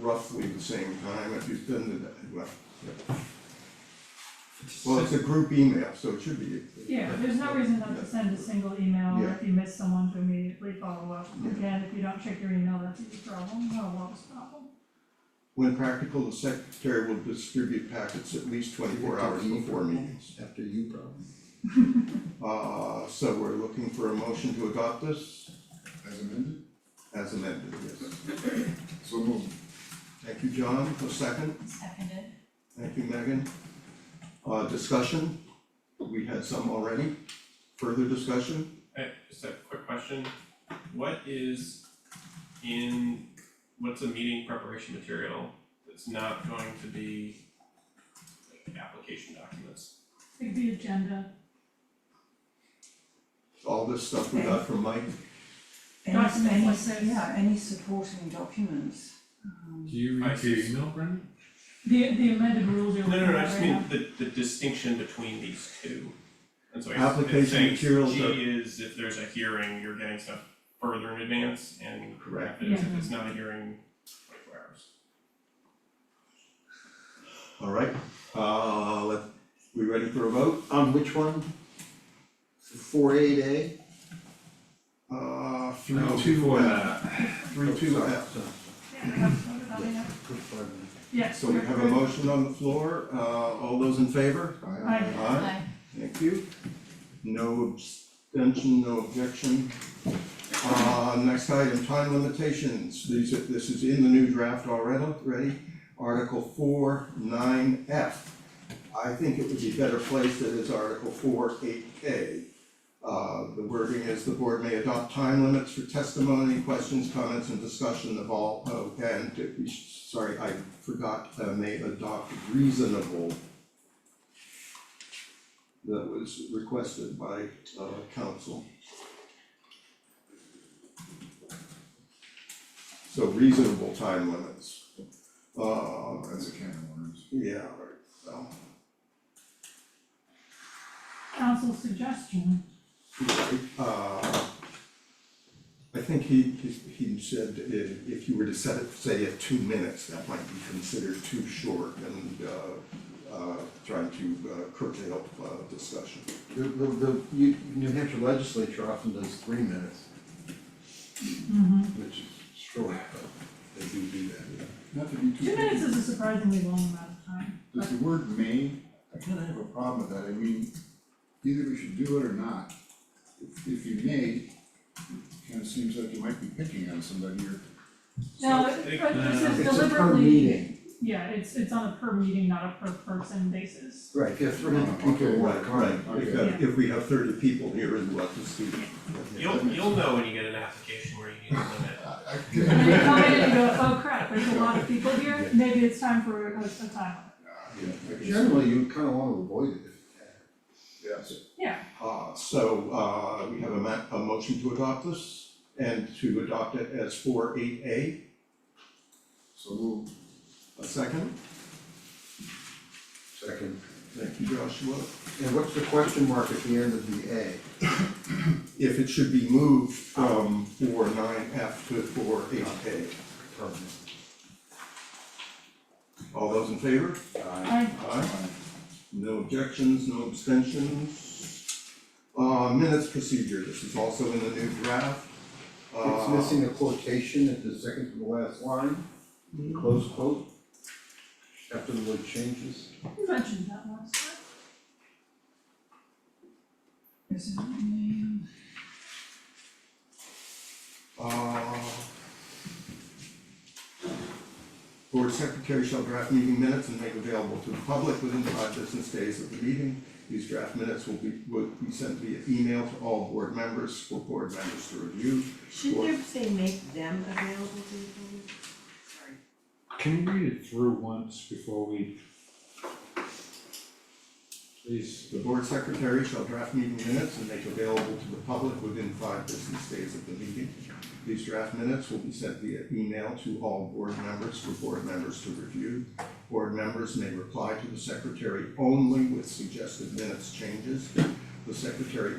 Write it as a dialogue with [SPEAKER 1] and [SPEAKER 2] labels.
[SPEAKER 1] roughly the same time, if you've been to that, well, yeah. Well, it's a group email, so it should be.
[SPEAKER 2] Yeah, there's no reason not to send a single email, or if you miss someone, to immediately follow up.
[SPEAKER 1] Yeah.
[SPEAKER 2] Again, if you don't check your email, that's your problem, not a lot's problem.
[SPEAKER 1] When practical, the secretary will distribute packets at least twenty-four hours before meetings.
[SPEAKER 3] After you probably.
[SPEAKER 1] Uh, so we're looking for a motion to adopt this
[SPEAKER 3] As amended,
[SPEAKER 1] as amended, yes.
[SPEAKER 3] so moved.
[SPEAKER 1] Thank you, John, for second.
[SPEAKER 4] Seconded.
[SPEAKER 1] Thank you, Megan. Uh, discussion, we had some already. Further discussion?
[SPEAKER 5] Hey, just a quick question, what is in, what's a meeting preparation material that's not going to be like application documents?
[SPEAKER 2] Like the agenda,
[SPEAKER 1] All this stuff we got from Mike,
[SPEAKER 6] Any-
[SPEAKER 2] Document
[SPEAKER 6] any-
[SPEAKER 2] what says-
[SPEAKER 6] Yeah, any supporting documents.
[SPEAKER 7] Do you
[SPEAKER 5] I
[SPEAKER 7] read your
[SPEAKER 5] see.
[SPEAKER 7] email, Brendan?
[SPEAKER 2] the the amended rules are.
[SPEAKER 5] No, no, no, I just
[SPEAKER 2] right now.
[SPEAKER 5] mean the the distinction between these two. And so I guess
[SPEAKER 1] Application
[SPEAKER 5] it's saying
[SPEAKER 1] materials
[SPEAKER 5] G
[SPEAKER 1] are-
[SPEAKER 5] is if there's a hearing, you're getting stuff further in advance and
[SPEAKER 1] Correct.
[SPEAKER 5] if it's not a hearing, twenty-four hours.
[SPEAKER 1] all right? Uh, let, we ready for a vote?
[SPEAKER 3] On which one? Four eight A?
[SPEAKER 1] Uh, three,
[SPEAKER 7] No,
[SPEAKER 1] two,
[SPEAKER 7] before
[SPEAKER 1] F,
[SPEAKER 7] that.
[SPEAKER 1] three, two, uh, F.
[SPEAKER 2] Yeah, we have to vote on it now. Yes.
[SPEAKER 1] So we have a motion on the floor, uh, all those in favor?
[SPEAKER 2] Aye.
[SPEAKER 1] Aye, thank you. No abstention, no objection. Uh, next item, time limitations, these are, this is in the new draft already, ready, Article four, nine F. I think it would be better placed that it's Article four, eight K. Uh, the wording is the board may adopt time limits for testimony, questions, comments, and discussion of all, oh, and, if we- sorry, I forgot, uh, may adopt reasonable that was requested by uh council. So reasonable time limits. Uh,
[SPEAKER 3] That's a can of worms.
[SPEAKER 1] yeah, right, well,
[SPEAKER 2] Council suggestion,
[SPEAKER 1] right, uh. I think he he he said if if you were to set it, say at two minutes, that might be considered too short and uh uh trying to uh, curtail uh discussion.
[SPEAKER 3] The, the, the, you, New Hampshire legislature often does three minutes. Which is short, but they do do that. Not to be
[SPEAKER 2] two minutes is a surprisingly long amount of time.
[SPEAKER 3] Does the word may, I kinda have a problem with that, I mean, either we should do it or not. If, if you may, it kinda seems like you might be picking on somebody or.
[SPEAKER 2] No,
[SPEAKER 5] So
[SPEAKER 2] it- but this is
[SPEAKER 3] It's a per
[SPEAKER 2] deliberately,
[SPEAKER 3] meeting.
[SPEAKER 2] yeah, it's it's on a per meeting, not a per person basis.
[SPEAKER 3] Right, if you have three hundred people,
[SPEAKER 1] Okay,
[SPEAKER 3] want
[SPEAKER 1] right, right,
[SPEAKER 3] to comment,
[SPEAKER 1] if
[SPEAKER 3] okay.
[SPEAKER 1] that- if we have thirty people here and we'll have to speak.
[SPEAKER 5] You'll you'll know when you get an application where you need a limit.
[SPEAKER 2] And they come in and go, oh crap, there's a lot of people here, maybe it's time for a a time limit.
[SPEAKER 3] Generally, you kinda wanna avoid it. Yes.
[SPEAKER 2] Yeah,
[SPEAKER 1] Uh, so, uh, we have a ma- a motion to adopt this and to adopt it as four eight A,
[SPEAKER 3] So move.
[SPEAKER 1] a second.
[SPEAKER 3] Second.
[SPEAKER 1] Thank you, Joshua.
[SPEAKER 3] And what's the question mark at the end of the A?
[SPEAKER 1] If it should be moved from four nine F to four eight A. All those in favor?
[SPEAKER 2] I,
[SPEAKER 1] Aye. No objections, no abstentions. Uh, minutes procedure, this is also in the new draft.
[SPEAKER 3] It's
[SPEAKER 1] Uh,
[SPEAKER 3] missing a quotation at the second to the last line, close quote. After the word changes.
[SPEAKER 2] you mentioned that last time.
[SPEAKER 6] Is it name?
[SPEAKER 1] Uh, Board secretary shall draft meeting minutes and make available to the public within five business days of the meeting. These draft minutes will be, will be sent via email to all board members for board members to review.
[SPEAKER 4] Shouldn't there say make them available to the public? Sorry.
[SPEAKER 7] Can you read it through once before we? Please,
[SPEAKER 1] The board secretary shall draft meeting minutes and make available to the public within five business days of the meeting. These draft minutes will be sent via email to all board members for board members to review. Board members may reply to the secretary only with suggested minutes changes. The secretary